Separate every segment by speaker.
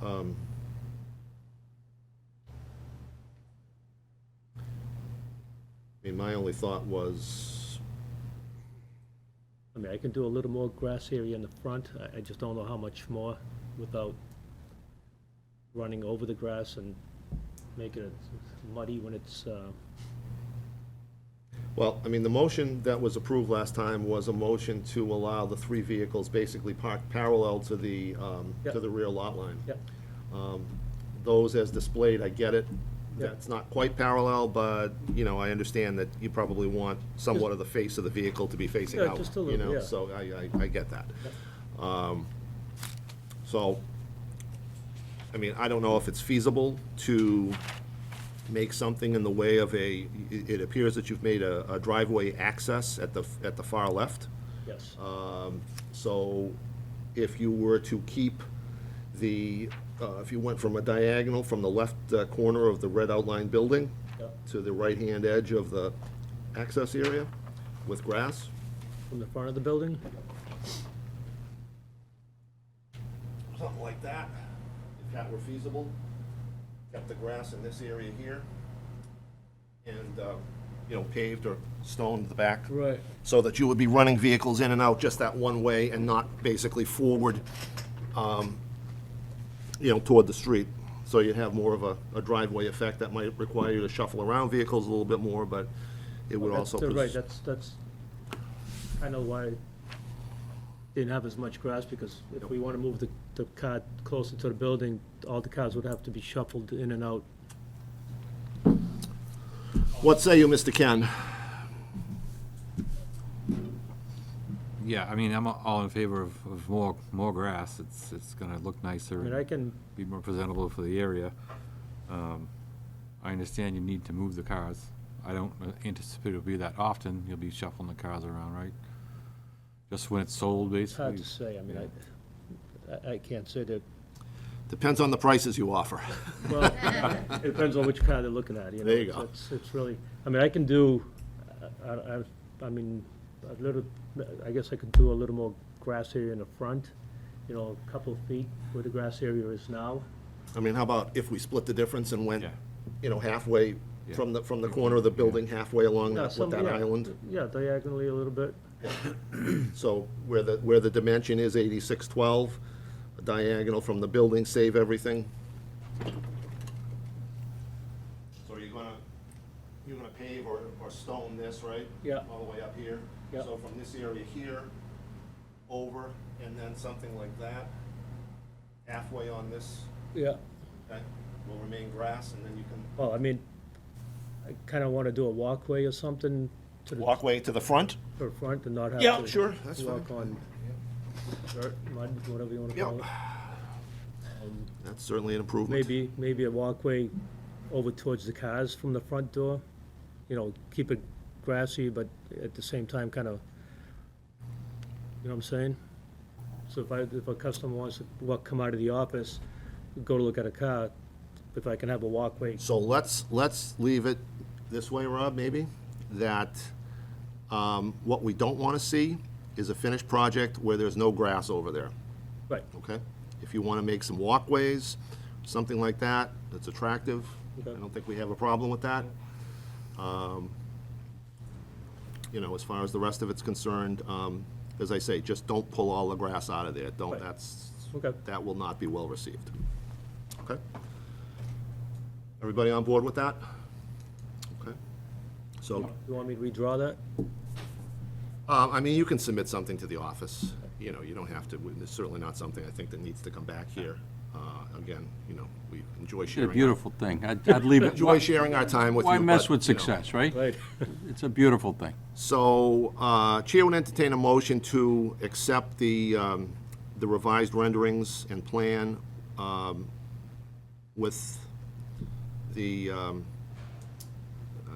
Speaker 1: um, I mean, my only thought was,
Speaker 2: I mean, I can do a little more grass area in the front, I, I just don't know how much more without running over the grass and making it muddy when it's, uh,
Speaker 1: well, I mean, the motion that was approved last time was a motion to allow the three vehicles basically parked parallel to the, um, to
Speaker 2: Yeah.
Speaker 1: the rear lot line.
Speaker 2: yeah,
Speaker 1: Um, Those as displayed, I get it.
Speaker 2: Yeah.
Speaker 1: That's not quite parallel, but, you know, I understand that you probably want somewhat of the face of the vehicle to be facing
Speaker 2: Yeah,
Speaker 1: out.
Speaker 2: just a little,
Speaker 1: You know,
Speaker 2: yeah.
Speaker 1: so I, I, I get that. Um, So, I mean, I don't know if it's feasible to make something in the way of a, it it appears that you've made a a driveway access at the, at the far left.
Speaker 2: yes.
Speaker 1: Um, So if you were to keep the, uh, if you went from a diagonal from the left uh, corner of the red outlined building
Speaker 2: Yep.
Speaker 1: to the right-hand edge of the access area with grass,
Speaker 2: From the front of the building,
Speaker 1: something like that, if that were feasible, kept the grass in this area here, and, uh, you know, paved or stoned the back.
Speaker 2: Right.
Speaker 1: So that you would be running vehicles in and out just that one way and not basically forward, um, you know, toward the street. So you'd have more of a a driveway effect that might require you to shuffle around vehicles a little bit more, but it would
Speaker 2: that's,
Speaker 1: also.
Speaker 2: uh, right,
Speaker 1: pres-
Speaker 2: that's, that's, I know why it didn't have as much grass, because if we wanna move the, the car closer to the building, all the cars would have to be shuffled in and out.
Speaker 1: What say you, Mr. Ken?
Speaker 3: Yeah, I mean, I'm all in favor of, of more, more grass. It's, it's gonna look nicer
Speaker 2: I mean, I
Speaker 3: and
Speaker 2: can,
Speaker 3: be more presentable for the area. Um, I understand you need to move the cars. I don't anticipate it'll be that often. You'll be shuffling the cars around, right? Just when it's sold,
Speaker 2: it's hard
Speaker 3: basically.
Speaker 2: to say, I mean, I, I, I can't say that,
Speaker 1: Depends on the prices you offer.
Speaker 2: well, it depends on which car they're looking at, you know.
Speaker 1: There you
Speaker 2: it's-
Speaker 1: go.
Speaker 2: It's, it's really, I mean, I can do, I, I, I- I mean, a little, I guess I could do a little more grass area in the front, you know, a couple of feet where the grass area is now.
Speaker 1: I mean, how about if we split the difference and went,
Speaker 3: Yeah.
Speaker 1: you know, halfway
Speaker 3: Yeah.
Speaker 1: from the, from the corner of the building, halfway along
Speaker 2: Yeah,
Speaker 1: that- with
Speaker 2: some-
Speaker 1: that
Speaker 2: yeah,
Speaker 1: island?
Speaker 2: Yeah, diagonally a little bit,
Speaker 1: So where the, where the dimension is eighty-six twelve, diagonal from the building, save everything. So you're gonna, you're gonna pave or, or stone this, right?
Speaker 2: Yeah.
Speaker 1: All the way up here?
Speaker 2: Yeah.
Speaker 1: So from this area here, over, and then something like that, halfway on this,
Speaker 2: yeah.
Speaker 1: okay, will remain grass, and then you can.
Speaker 2: Well, I mean, I kinda wanna do a walkway or something to the,
Speaker 1: Walkway to the front?
Speaker 2: to the front and not have to.
Speaker 1: Yeah, sure, that's
Speaker 2: Walk on dirt, mud, whatever you wanna
Speaker 1: Yeah.
Speaker 2: call it.
Speaker 1: That's certainly an improvement.
Speaker 2: Um, Maybe, maybe a walkway over towards the cars from the front door, you know, keep it grassy, but at the same time, kind of, you know what I'm saying? So if I, if a customer wants to walk, come out of the office, go to look at a car, if I can have a walkway,
Speaker 1: So let's, let's leave it this way, Rob, maybe, that um, what we don't want to see is a finished project where there's no grass over there,
Speaker 2: right,
Speaker 1: okay? If you want to make some walkways, something like that, that's attractive, I
Speaker 2: Okay.
Speaker 1: don't think we have a problem with that. Um, You know, as far as the rest of it's concerned, um, as I say, just don't pull all the grass out of there, don't,
Speaker 2: Right.
Speaker 1: that's,
Speaker 2: okay,
Speaker 1: that will not be well received. Okay? Everybody on board with that? Okay. So,
Speaker 2: you want me to redraw that?
Speaker 1: uh, I mean, you can submit something to the office, you know, you don't have to, it's certainly not something I think that needs to come back here. Uh, Again, you know, we enjoy
Speaker 4: It's a
Speaker 1: sharing. our-
Speaker 4: beautiful thing. I'd I'd leave it,
Speaker 1: Enjoy sharing our time with you.
Speaker 4: why mess
Speaker 1: but,
Speaker 4: with
Speaker 1: you know.
Speaker 4: success, right?
Speaker 2: Right,
Speaker 4: It's a beautiful thing.
Speaker 1: So, uh, Chair would entertain a motion to accept the um, the revised renderings and plan um, with the um, uh,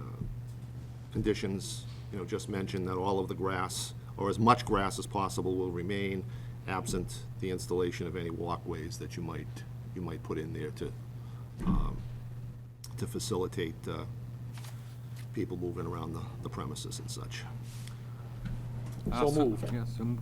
Speaker 1: conditions, you know, just mentioned, that all of the grass, or as much grass as possible, will remain absent the installation of any walkways that you might, you might put in there to, um, to facilitate uh, people moving around the the premises and such.
Speaker 3: Ah, So moved. Yes, I'm